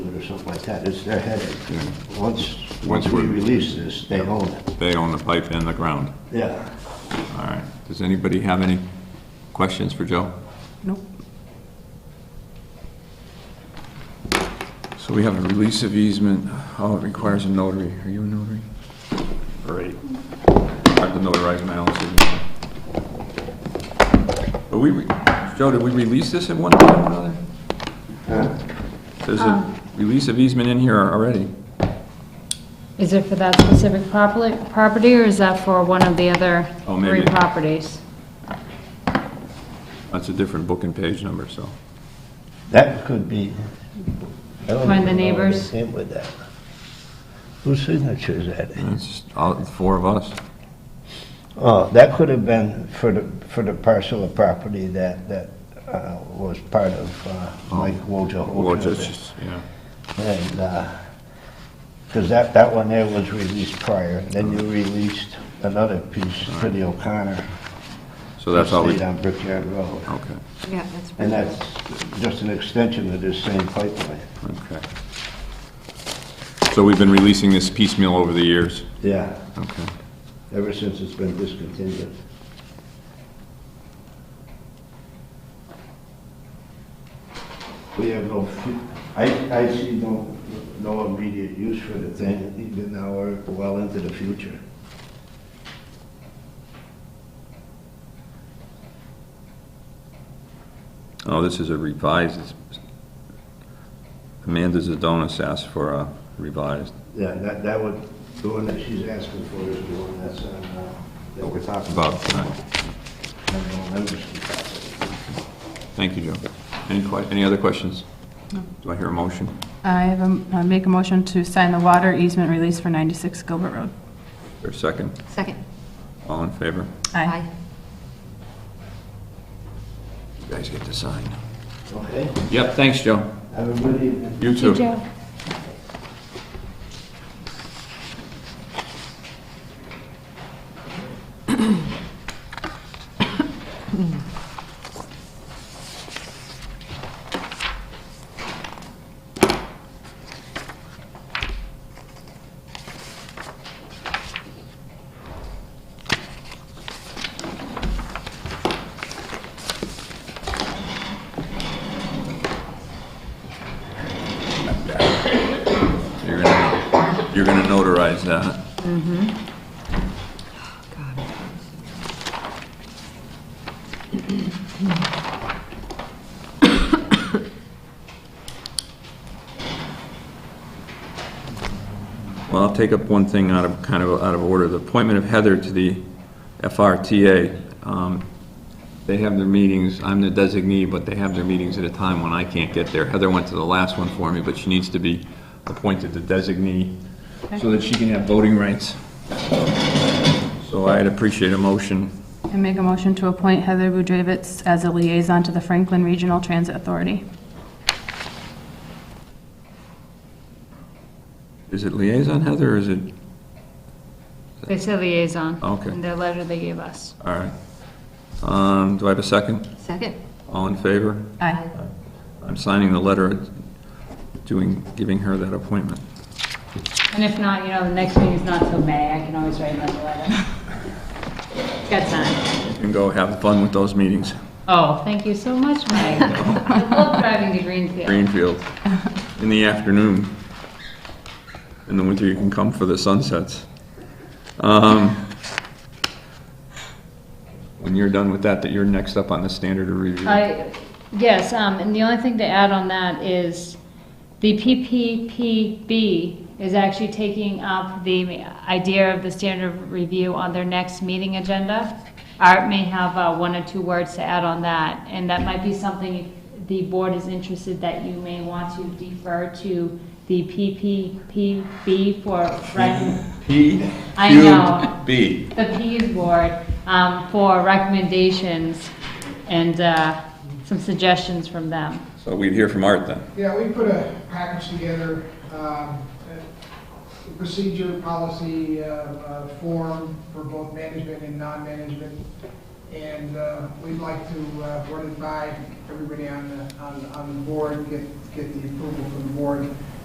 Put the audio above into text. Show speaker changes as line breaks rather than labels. or something like that, it's their headache. Once,
Once
once we
we're-
release this, they own it.
They own the pipe and the ground.
Yeah.
All right. Does anybody have any questions for Joe?
Nope.
So we have a release of easement, oh, it requires a notary, are you a notary?
Great.
I have to notarize my own signature. But we, re- Joe, did we release this at one time or another? There's a release of easement in here already.
Is it for that specific properly- property, or is that for one of the other
Oh,
three
maybe.
properties?
That's a different book and page number, so.
That could be. I don't
Find the
even know where they
neighbors.
Came with that. Whose signature is that?
It's just all, the four of us.
Oh, that could have been for the, for the parcel of property that, that uh, was part of uh, Mike Wojo.
Well, Oh. just- just, yeah.
And, because that, that one there was released prior, then you released another piece for the O'Connor.
So that's all we, Oh.
Stayed on Brickyard Road.
okay,
Yeah, that's.
And that's just an extension of this same pipeline.
okay. So we've been releasing this piecemeal over the years,
Yeah,
okay.
ever since it's been discontinued. We have no, fu- I, I see no, no immediate use for the thing, even now we're well into the future.
Oh, this is a revised, it's- Amanda Zadonis asked for a revised.
Yeah, that, that would, the one that she's asking for is the one that's, on, uh, that we're talking about.
About, uh,
And no members can talk.
Thank you, Joe. Any que, any other questions? Do I hear a motion?
I have, a- I make a motion to sign the water easement release for 96 Gilbert Road.
Or a second?
Second.
All in favor?
Aye.
You guys get to sign.
Okay,
Yep, thanks, Joe.
have a good evening.
You too.
Joe.
You're gonna, you're gonna notarize that. Well, I'll take up one thing out of, kind of, out of order, the appointment of Heather to the FRTA. Um, They have their meetings, I'm the designee, but they have their meetings at a time when I can't get there. Heather went to the last one for me, but she needs to be appointed the designee so that she can have voting rights. So I'd appreciate a motion.
I make a motion to appoint Heather Budrevitz as a liaison to the Franklin Regional Transit Authority.
Is it liaison, Heather, or is it,
They said liaison.
Okay.
In their letter they gave us.
all right. Um, Do I have a second?
Second.
All in favor?
Aye.
I'm signing the letter doing, giving her that appointment.
And if not, you know, the next meeting's not till May, I can always write another letter. Got time.
You can go have fun with those meetings.
Oh, thank you so much, Mike. I love driving to Greenfield.
Greenfield, in the afternoon. In the winter, you can come for the sunsets. Um, When you're done with that, that you're next up on the standard of review.
I, yes, um, and the only thing to add on that is the PPPB is actually taking up the idea of the standard of review on their next meeting agenda. Art may have uh, one or two words to add on that, and that might be something if the board is interested that you may want to defer to the PPPB for rec-
P.
I know.
B.
the Peas Board um, for recommendations and uh, some suggestions from them.
So we'd hear from Art then.
Yeah, we put a package together, um, a procedure, policy, uh, uh, form for both management and non-management. And uh, we'd like to uh, run it by everybody on the, on on the board, get, get the approval from the board.